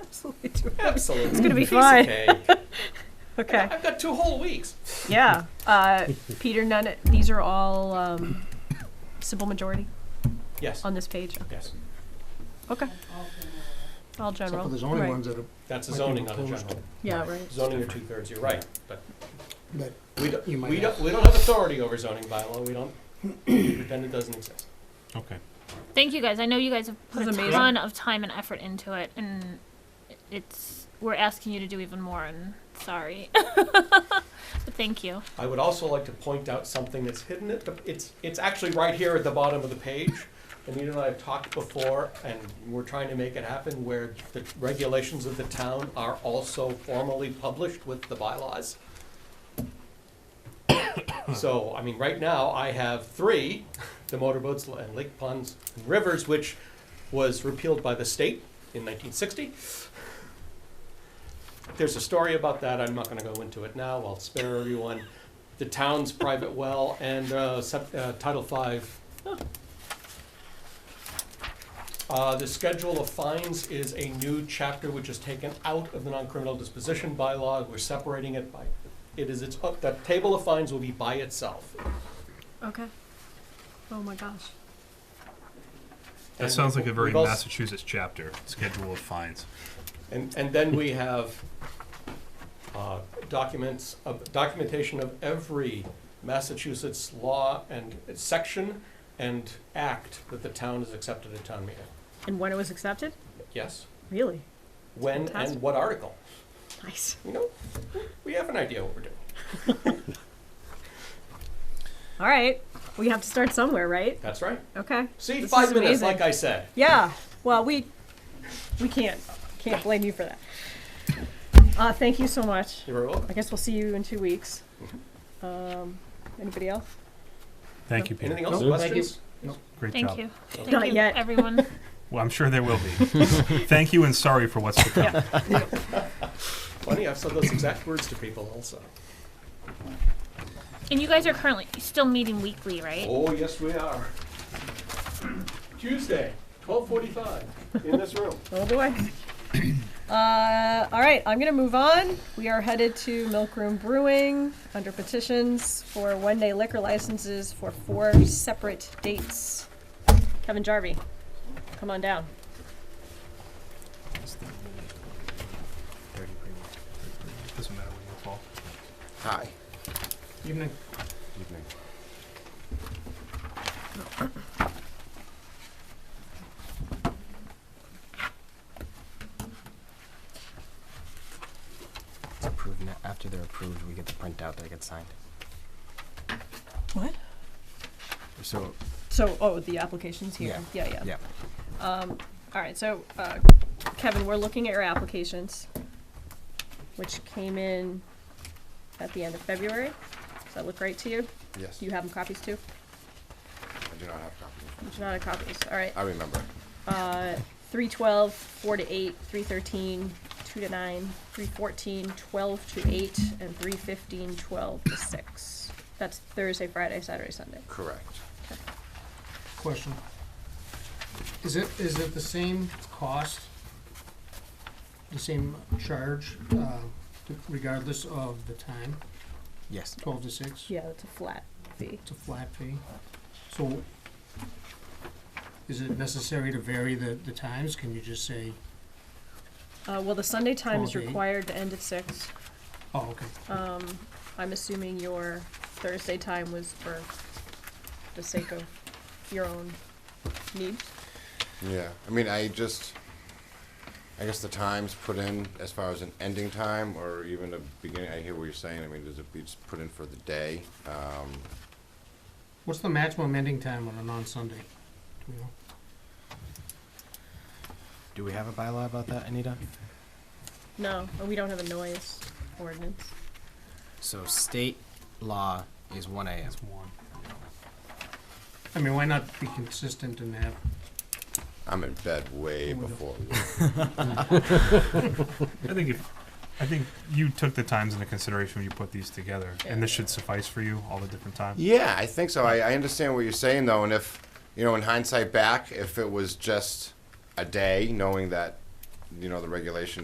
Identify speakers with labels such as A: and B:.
A: Absolutely. do it.
B: Absolutely. It's
A: gonna be fine.
B: Okay.
A: Okay.
B: I've got two whole weeks.
A: Yeah. Uh, Peter, none. These are all um, simple majority
B: Yes.
A: on this page.
B: Yes.
A: Okay. All
C: Except
A: general.
C: for the zoning
A: right.
C: ones that are,
B: That's the
C: Might be
B: zoning on a
C: proposed.
B: general.
A: Yeah. Right.
B: Zoning are two thirds. You're right, but
C: that
B: we don't.
C: you might
B: We
C: have.
B: don't. We don't have authority over zoning bylaw. We don't. we pretend it doesn't exist.
D: Okay.
E: Thank you guys. I know you guys have put
A: This is
E: a
A: amazing.
E: ton of time and effort into it, and it's we're asking you to do even more. And sorry, but thank you.
B: I would also like to point out something that's hidden. At the, it's it's actually right here at the bottom of the page. Anita and I have talked before, and we're trying to make it happen where the regulations of the town are also formally published with the bylaws. so, I mean, right now I have three: the motorboats and lake ponds and rivers, which was repealed by the state in 1960. There's a story about that. I'm not going to go into it now. I'll spare everyone. The town's private well and uh, sep- uh, Title V. Uh, the schedule of fines is a new chapter which is taken out of the non-criminal disposition bylaw. We're separating it by. It is its. Uh, that table of fines will be by itself.
A: Okay. Oh my gosh.
B: And
D: That sounds like a
B: we've
D: very
B: also-
D: Massachusetts chapter, schedule of fines.
B: And, and then we have uh, documents, of- documentation of every Massachusetts law and section and act that the town has accepted at town meeting.
A: And when it was accepted?
B: Yes.
A: Really?
B: When and
A: Fantastic.
B: what article?
A: Nice.
B: You know, we have an idea what we're doing.
A: All right. We have to start somewhere, right?
B: That's right.
A: Okay.
B: See,
A: This
B: five
A: is
B: minutes,
A: amazing.
B: like I said.
A: Yeah. Well, we we can't can't blame you for that. Uh, thank you so much.
B: You're welcome.
A: I guess we'll see you in two weeks. Um, anybody else?
D: Thank you, Peter.
B: Anything else?
C: Nope. Thank you.
B: Questions?
D: Great
E: Thank
D: job.
E: you. Thank
A: Not
E: you,
A: yet.
E: everyone.
D: Well, I'm sure there will be. Thank you and sorry for what's to come.
A: Yeah.
B: Funny, I've said those exact words to people also.
E: And you guys are currently still meeting weekly, right?
B: Oh, yes, we are. Tuesday, 12:45, in this room.
A: Oh boy. Uh, all right, I'm gonna move on. We are headed to Milk Room Brewing under petitions for one-day liquor licenses for four separate dates. Kevin Jarvie, come on down.
D: Doesn't matter when you fall.
F: Hi.
C: Evening.
F: Evening. It's approved. Now. After they're approved, we get the printout that gets signed.
A: What?
F: So
A: So, oh, the application's here. Yeah, yeah. Um,
F: yeah,
A: All right, so uh, Kevin, we're looking at your applications, which came in at the end of February. Does that look right to you?
F: yes.
A: Do you have them copies too?
F: I do not have copies.
A: You should not have copies. All right.
F: I remember.
A: Uh, 312, 4 to 8, 313, 2 to 9, 314, 12 to 8, and 315, 12 to 6. That's Thursday, Friday, Saturday, Sunday.
F: Correct.
C: Question. Is it, is it the same cost, the same charge, uh, regardless of the time,
F: Yes.
C: twelve to six?
A: Yeah, that's a flat fee.
C: It's a flat fee. So is it necessary to vary the, the times? Can you just say,
A: Uh, well, the Sunday time is
C: 12 to 8.
A: required to end at 6.
C: oh, okay.
A: I'm assuming your Thursday time was for the sake of your own needs.
F: Yeah, I mean, I just, I guess the times put in as far as an ending time or even a beginning, I hear what you're saying, I mean, does it be just put in for the day? Um,
C: What's the maximum ending time on a non-Sunday? Do we know?
G: Do we have a bylaw about that, Anita?
A: No, and we don't have a noise ordinance.
G: So state law is one AM.
D: It's warm.
C: I mean, why not be consistent and have,
F: I'm in bed way before,
D: I think if, I think you took the times into consideration when you put these together, and this should suffice for you, all the different times.
F: Yeah, I think so. I, I understand what you're saying though, and if you know, in hindsight back, if it was just a day, knowing that you know, the regulation